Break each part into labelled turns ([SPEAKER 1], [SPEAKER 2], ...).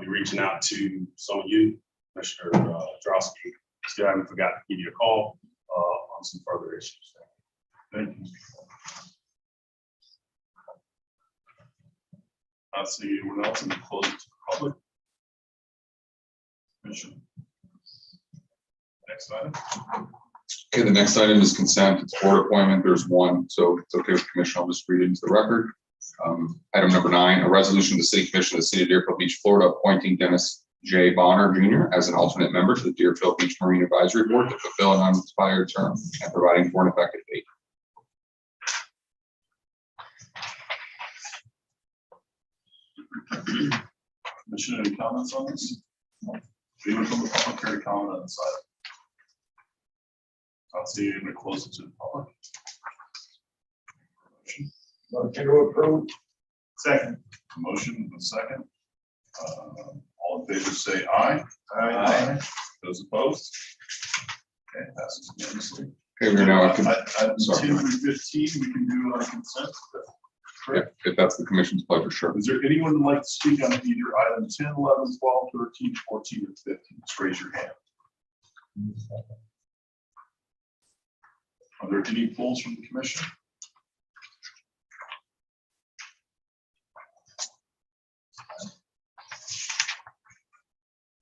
[SPEAKER 1] be reaching out to some of you, Commissioner uh, Drosky. Still haven't forgotten to give you a call uh, on some further issues. Thank you. I see anyone else in the closing to the public. Commissioner. Next item.
[SPEAKER 2] Okay, the next item is consent. It's board appointment. There's one, so it's okay with the commission. I'll just read it into the record. Um, Item number nine, a resolution of the city commission of the city of Deerfield Beach, Florida, appointing Dennis J. Bonner Jr. as an alternate member to the Deerfield Beach Marine Advisory Board to fulfill an unexpired term and providing for an effective date.
[SPEAKER 1] Commissioner, any comments on this? Anyone from the public care comment on this item? I'll see you to close it to the public.
[SPEAKER 3] Motion to approve.
[SPEAKER 1] Second. Motion and second. Uh, All in favor, say aye. Those opposed? Okay, passes unanimously.
[SPEAKER 2] Okay, we're now, at con-
[SPEAKER 1] I- Item
[SPEAKER 2] Sorry.
[SPEAKER 1] two and fifteen, we can do on consent. uh,
[SPEAKER 2] if if that's the commission's pleasure, sure.
[SPEAKER 1] Is there anyone who'd like to speak on either item 10, 11, 12, 13, 14, or fifteen? Just raise your hand. Are there any polls from the commission?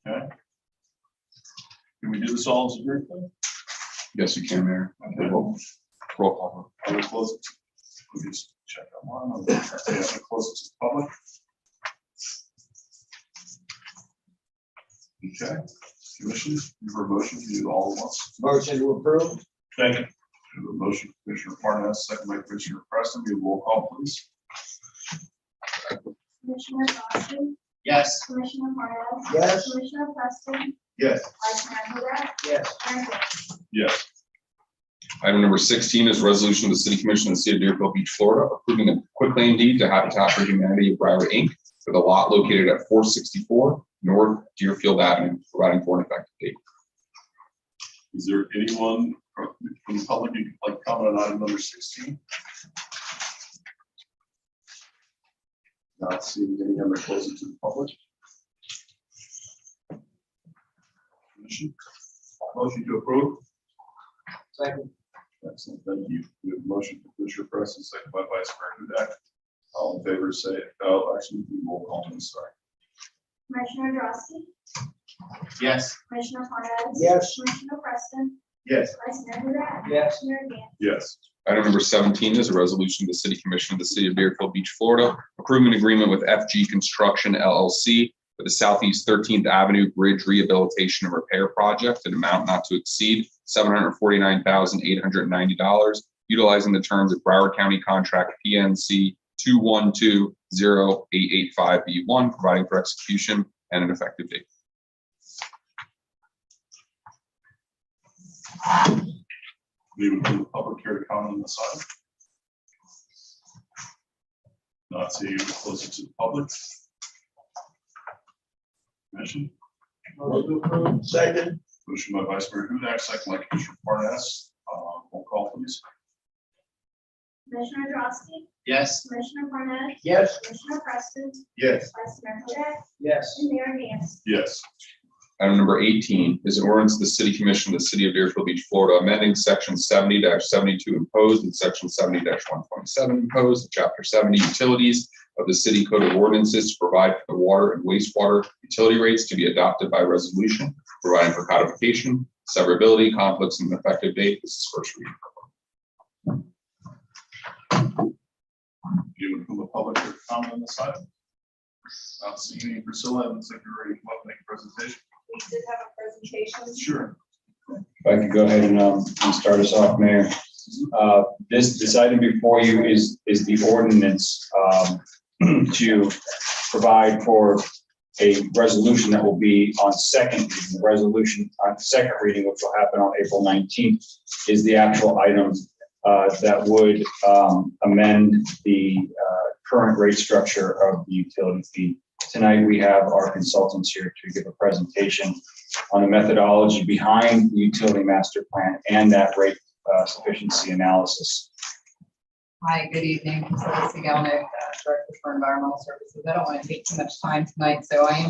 [SPEAKER 1] Okay. Can we do this all as a group? then?
[SPEAKER 2] Yes, you can, Mayor.
[SPEAKER 1] Okay.
[SPEAKER 2] Roll roll call.
[SPEAKER 1] I will close it. We'll just check that one. I'll- yeah, I'll Close it to the public. Okay, commission, you have a motion to do all at once.
[SPEAKER 3] Motion to approve.
[SPEAKER 1] Second. We have a motion, Commissioner Parnas, second by Commissioner Preston. We have roll call, please.
[SPEAKER 4] Commissioner Boston,
[SPEAKER 1] Yes.
[SPEAKER 4] Commissioner Morales.
[SPEAKER 3] Yes.
[SPEAKER 4] Commissioner Preston,
[SPEAKER 1] Yes.
[SPEAKER 4] Vice Mayor Huda,
[SPEAKER 3] Yes.
[SPEAKER 4] Mayor Hill.
[SPEAKER 1] Yes.
[SPEAKER 2] Item number sixteen is a resolution of the city commission of the city of Deerfield Beach, Florida, approving a quitclaim deed to Habitat for Humanity of Broward, Inc. for the lot located at four sixty-four North Deerfield Avenue, providing for an effective date.
[SPEAKER 1] Is there anyone from from the public who'd like to comment on item number sixteen? Not seeing any other closing to the public. Commission? Motion to approve.
[SPEAKER 3] Second.
[SPEAKER 1] Excellent, thank you. We have a motion for Commissioner Preston, second by Vice Mayor Hudak. All in favor, say, oh, actually, we will call them, sorry.
[SPEAKER 4] Commissioner Drosky,
[SPEAKER 1] Yes.
[SPEAKER 4] Commissioner Morales.
[SPEAKER 3] Yes.
[SPEAKER 4] Commissioner Preston,
[SPEAKER 1] Yes.
[SPEAKER 4] Vice Mayor Huda.
[SPEAKER 3] Yes.
[SPEAKER 4] Mayor Dan.
[SPEAKER 1] Yes.
[SPEAKER 2] Item number seventeen is a resolution of the City Commission of the City of Deerfield Beach, Florida, approving an agreement with FG Construction LLC for the Southeast Thirteenth Avenue Bridge Rehabilitation and Repair Project, an amount not to exceed seven hundred forty-nine thousand eight hundred ninety dollars, utilizing the terms of Broward County Contract PNC two one two zero eight eight five B one, providing for execution and an effective date.
[SPEAKER 1] Anyone from the public care to comment on this item? Not seeing anyone closer to the public. Commission,
[SPEAKER 3] Motion to approve. Second.
[SPEAKER 1] motion by Vice Mayor Hudak, second by Commissioner Parnas. Uh, Roll call, please.
[SPEAKER 4] Commissioner Drosky,
[SPEAKER 3] Yes.
[SPEAKER 4] Commissioner Morales,
[SPEAKER 3] Yes.
[SPEAKER 4] Commissioner Preston,
[SPEAKER 1] Yes.
[SPEAKER 4] Vice Mayor Huda,
[SPEAKER 3] Yes.
[SPEAKER 4] and Mayor Dan.
[SPEAKER 1] Yes.
[SPEAKER 2] Item number eighteen is an ordinance of the city commission of the city of Deerfield Beach, Florida, amending section seventy seventy-two imposed and section seventy one twenty-seven imposed, chapter seventy utilities of the city code of ordinances to provide for the water and wastewater utility rates to be adopted by resolution, providing for codification, severability, conflicts, and effective date. This is first reading.
[SPEAKER 1] Anyone from the public care to comment on this item? Not seeing any. Priscilla, I would say you're ready to come up and make a presentation.
[SPEAKER 5] We did have a presentation.
[SPEAKER 1] Sure.
[SPEAKER 6] If I could go ahead and, um, and start us off, Mayor. Uh, this, this item before you is, is the ordinance, um, to provide for a resolution that will be on second, reading. the resolution on second reading, which will happen on April nineteenth, is the actual item, uh, that would, um, amend the, uh, current rate structure of the utility fee. Tonight, we have our consultants here to give a presentation on the methodology behind the utility master plan and that rate uh, sufficiency analysis.
[SPEAKER 7] Hi, good evening. Priscilla Sigalnik, uh, Director for Environmental Services. I don't want to take too much time tonight, so I am